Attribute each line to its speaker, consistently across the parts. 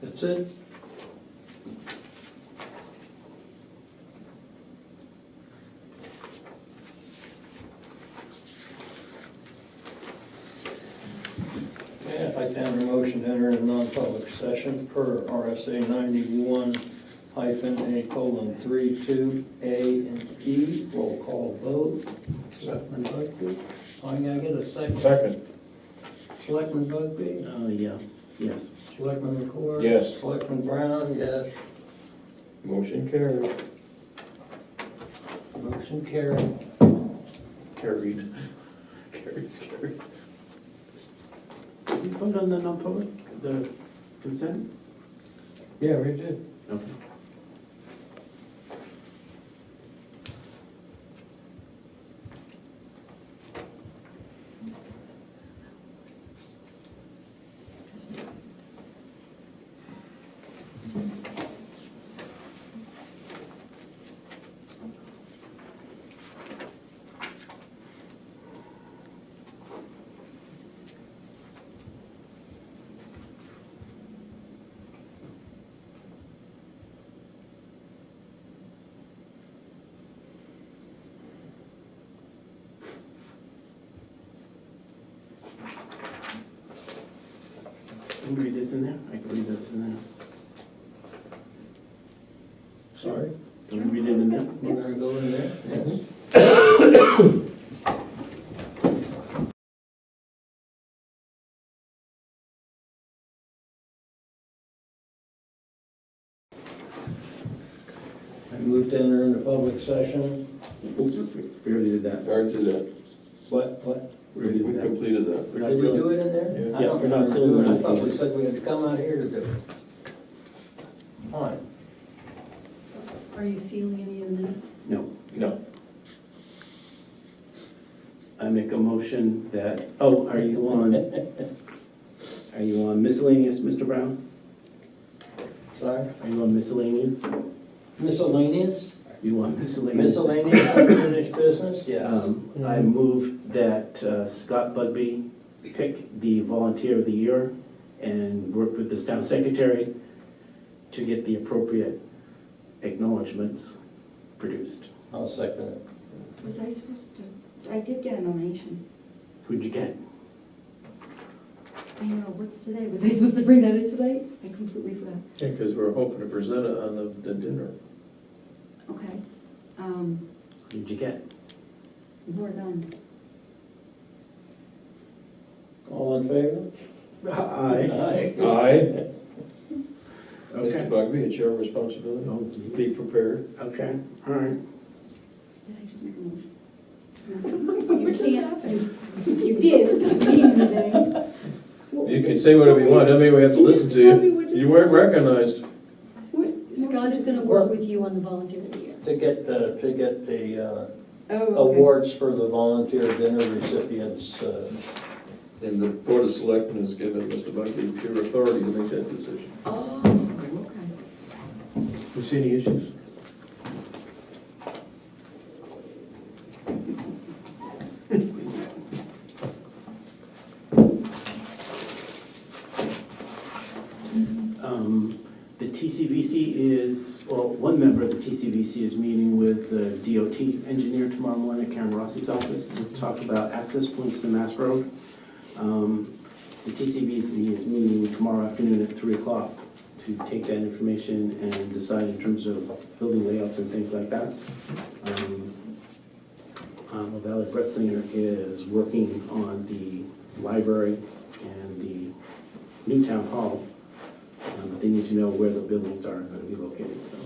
Speaker 1: That's it? Okay, I'd like to have a motion to enter a non-public session per RSA ninety-one hyphen A colon three two A and E. Roll call vote. Selectman Bugby? I'm gonna get a second.
Speaker 2: Second,
Speaker 1: Selectman Bugby?
Speaker 3: Oh, yeah, yes.
Speaker 1: Selectman McCord?
Speaker 2: Yes.
Speaker 1: Selectman Brown, yes.
Speaker 2: motion carried.
Speaker 1: Motion carried.
Speaker 2: Carried. Carries carried.
Speaker 3: Did you vote on the non-public, the consent?
Speaker 2: Yeah, we did.
Speaker 3: Okay. Can you read this in there? I can read this in there.
Speaker 1: Sorry.
Speaker 3: Can you read it in there?
Speaker 1: We're gonna go in there? Yes.
Speaker 2: Mm-hmm.
Speaker 1: I move to enter into public session.
Speaker 3: Oops, We already did that.
Speaker 4: Prior to that,
Speaker 1: What, what?
Speaker 3: We
Speaker 4: we
Speaker 3: already did that.
Speaker 4: completed that.
Speaker 3: We're not
Speaker 1: Did we
Speaker 3: sealing-
Speaker 1: do it in there? I
Speaker 3: Yeah,
Speaker 1: don't
Speaker 3: we're not
Speaker 1: remember
Speaker 3: sealing, we're
Speaker 1: doing it.
Speaker 3: not
Speaker 1: I thought we
Speaker 3: sealing.
Speaker 1: said we had to come out here to do it. Fine.
Speaker 5: Are you sealing any of the minutes?
Speaker 3: No.
Speaker 4: No.
Speaker 3: I make a motion that, oh, are you on, are you on miscellaneous, Mr. Brown?
Speaker 1: Sorry.
Speaker 3: Are you on miscellaneous?
Speaker 1: Miscellaneous?
Speaker 3: You on miscellaneous?
Speaker 1: Miscellaneous unfinished business, yes.
Speaker 3: Um, I move that uh, Scott Bugby pick the volunteer of the year and work with this town secretary to get the appropriate acknowledgements produced.
Speaker 1: I'll second it.
Speaker 6: Was I supposed to, I did get a nomination.
Speaker 3: Who'd you get?
Speaker 6: I know, what's today? Was I supposed to bring that in tonight? I completely forgot.
Speaker 2: Yeah, because we're hoping to present it on the, the dinner.
Speaker 6: Okay. Um,
Speaker 3: Who'd you get?
Speaker 6: Laura Dunn.
Speaker 1: All in favor?
Speaker 3: Aye.
Speaker 1: Aye.
Speaker 2: Aye. Mr.
Speaker 3: Okay.
Speaker 2: Bugby, it's your responsibility.
Speaker 3: Oh,
Speaker 2: Be
Speaker 3: geez.
Speaker 2: prepared.
Speaker 3: Okay, all right.
Speaker 6: Did I just make a motion?
Speaker 5: What just happened?
Speaker 6: You did, it doesn't mean anything.
Speaker 2: You can say whatever you want, I mean, we have to listen to
Speaker 5: Tell me what
Speaker 2: you.
Speaker 5: just
Speaker 2: You weren't recognized.
Speaker 5: What- Scott is gonna work with you on the volunteer of the year.
Speaker 1: To get the, to get the uh,
Speaker 6: Oh, okay.
Speaker 1: awards for the volunteer dinner recipients, uh,
Speaker 2: And the Board of Selectmen has given Mr. Bugby pure authority to make that decision.
Speaker 6: Oh, okay.
Speaker 2: You see any issues?
Speaker 3: Um, The TCVC is, well, one member of the TCVC is meeting with the DOT engineer tomorrow morning at Karen Rossi's office to talk about access points to Mass Road. Um, The TCVC is meeting tomorrow afternoon at 3 o'clock to take that information and decide in terms of building layouts and things like that. Um, um, Valerie Bretzinger is working on the library and the new town hall um, But they need to know where the buildings are going to be located, so.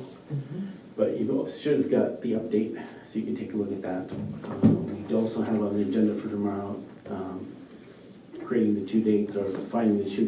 Speaker 3: But you should have got the update, so you can take a look at that. Um, We also have on the agenda for tomorrow, um, creating the two dates or finding the two